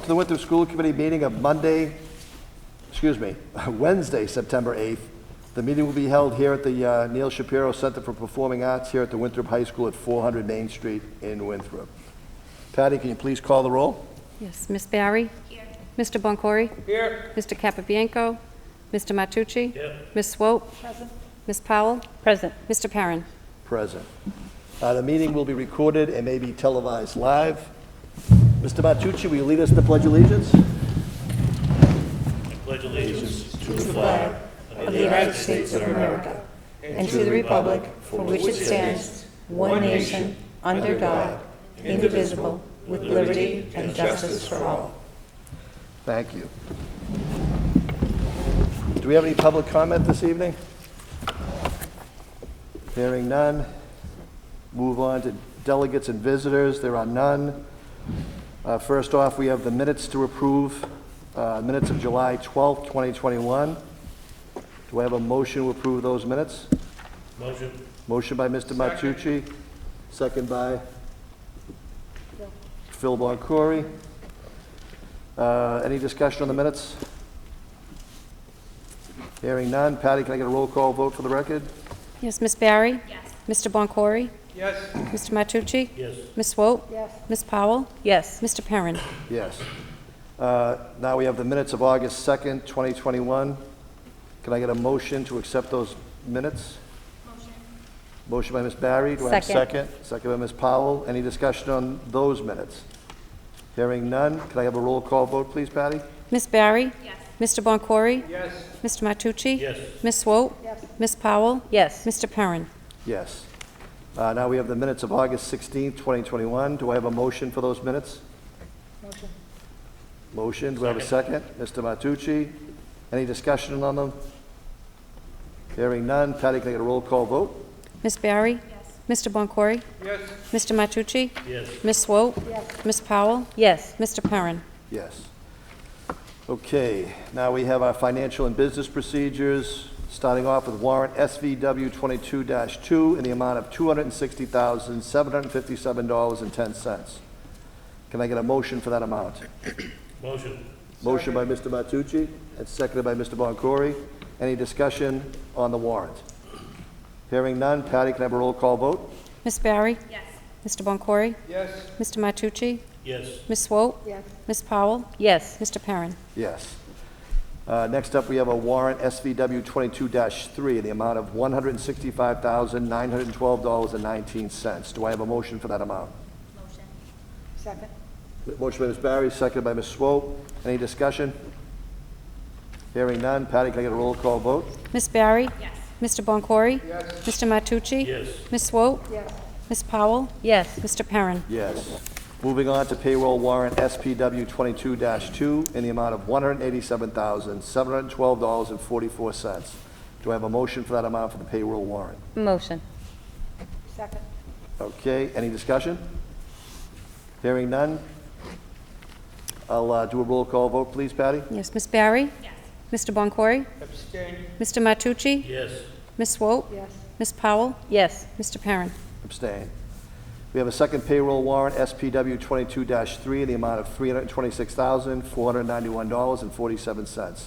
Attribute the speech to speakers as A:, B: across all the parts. A: to the Winthrop School Committee meeting of Monday, excuse me, Wednesday, September 8th. The meeting will be held here at the uh, Neil Shapiro Center for Performing Arts here at the Winthrop High School at 400 Main Street in Winthrop. Patty, can you please call the roll?
B: Yes, Ms. Barry? Here. Mr. Boncory? Here. Mr. Capabianco? Mr. Matucci? Here. Ms. Swope? Present. Ms. Powell?
C: Present.
B: Mr. Perrin?
A: Present. Uh, The meeting will be recorded and may be televised live. Mr. Matucci, will you lead us in the Pledge of Allegiance?
D: of the United States of America and to the republic for which it stands, one nation, under God, indivisible, with liberty and justice for all.
A: Thank you. Do we have any public comment this evening? Hearing none. Move on to delegates and visitors. There are none. Uh, First off, we have the minutes to approve, uh, minutes of July 12th, 2021. Do I have a motion to approve those minutes?
E: Motion.
A: Motion by Mr. Matucci, second by Phil Boncory. Uh, Any discussion on the minutes? Hearing none. Patty, can I get a roll call vote for the record?
B: Yes, Ms. Barry? Yes. Mr. Boncory?
E: Yes.
B: Mr. Matucci?
E: Yes.
B: Ms. Swope? Yes. Ms. Powell?
C: Yes.
B: Mr. Perrin?
A: Yes. Uh, Now we have the minutes of August 2nd, 2021. Can I get a motion to accept those minutes? Motion. Motion by Ms. Barry. Do I have a
C: Second.
A: second? Second by Ms. Powell. Any discussion on those minutes? Hearing none. Can I have a roll call vote, please, Patty?
B: Ms. Barry? Yes. Mr. Boncory?
E: Yes.
B: Mr. Matucci?
E: Yes.
B: Ms. Swope? Yes. Ms. Powell?
C: Yes.
B: Mr. Perrin?
A: Yes. Uh, Now we have the minutes of August 16th, 2021. Do I have a motion for those minutes? Motion. Motion. Do I have a second? Mr. Matucci, any discussion on them? Hearing none. Patty, can I get a roll call vote?
B: Ms. Barry? Yes. Mr. Boncory?
E: Yes.
B: Mr. Matucci?
E: Yes.
B: Ms. Swope? Yes. Ms. Powell?
C: Yes.
B: Mr. Perrin?
A: Yes. Okay, now we have our financial and business procedures, starting off with warrant SVW 22-2 in the amount of $260,757.10. Can I get a motion for that amount?
E: Motion.
A: Motion by Mr. Matucci and seconded by Mr. Boncory. Any discussion on the warrant? Hearing none. Patty, can I have a roll call vote?
B: Ms. Barry? Yes. Mr. Boncory?
E: Yes.
B: Mr. Matucci?
E: Yes.
B: Ms. Swope? Yes. Ms. Powell?
C: Yes.
B: Mr. Perrin?
A: Yes. Uh, Next up, we have a warrant SVW 22-3 in the amount of $165,912.19. Do I have a motion for that amount? Motion. Second. Motion by Ms. Barry, seconded by Ms. Swope. Any discussion? Hearing none. Patty, can I get a roll call vote?
B: Ms. Barry? Yes. Mr. Boncory? Yes. Mr. Matucci?
E: Yes.
B: Ms. Swope? Yes. Ms. Powell?
C: Yes.
B: Mr. Perrin?
A: Yes. Moving on to payroll warrant SPW 22-2 in the amount of $187,712.44. Do I have a motion for that amount for the payroll warrant?
C: Motion.
A: Okay, any discussion? Hearing none? I'll uh, do a roll call vote, please, Patty?
B: Yes, Ms. Barry? Yes. Mr. Boncory?
E: Abstain.
B: Mr. Matucci?
E: Yes.
B: Ms. Swope? Yes. Ms. Powell?
C: Yes.
B: Mr. Perrin?
A: Abstain. We have a second payroll warrant, SPW 22-3, in the amount of $326,491.47.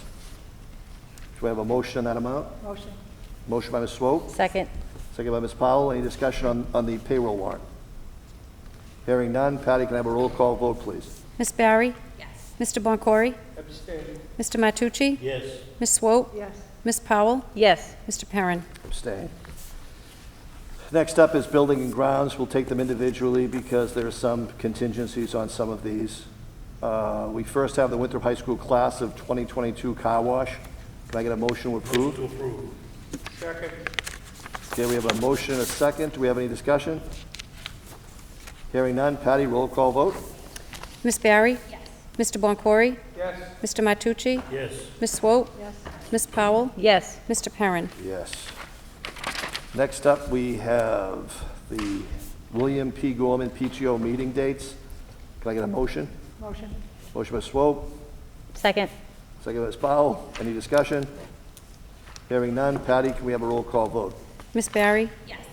A: Do I have a motion on that amount? Motion. Motion by Ms. Swope,
C: Second.
A: second by Ms. Powell. Any discussion on on the payroll warrant? Hearing none. Patty, can I have a roll call vote, please?
B: Ms. Barry? Yes. Mr. Boncory?
E: Abstain.
B: Mr. Matucci?
E: Yes.
B: Ms. Swope? Yes. Ms. Powell?
C: Yes.
B: Mr. Perrin?
A: Abstain. Next up is building and grounds. We'll take them individually because there are some contingencies on some of these. Uh, We first have the Winthrop High School class of 2022 car wash. Can I get a motion to approve?
E: To approve. Second.
A: Okay, we have a motion and a second. Do we have any discussion? Hearing none. Patty, roll call vote?
B: Ms. Barry? Yes. Mr. Boncory?
E: Yes.
B: Mr. Matucci?
E: Yes.
B: Ms. Swope? Yes. Ms. Powell?
C: Yes.
B: Mr. Perrin?
A: Yes. Next up, we have the William P. Gorman PTO meeting dates. Can I get a motion? Motion. Motion by Swope,
C: Second.
A: second by Ms. Powell. Any discussion? Hearing none. Patty, can we have a roll call vote?
B: Ms. Barry? Yes.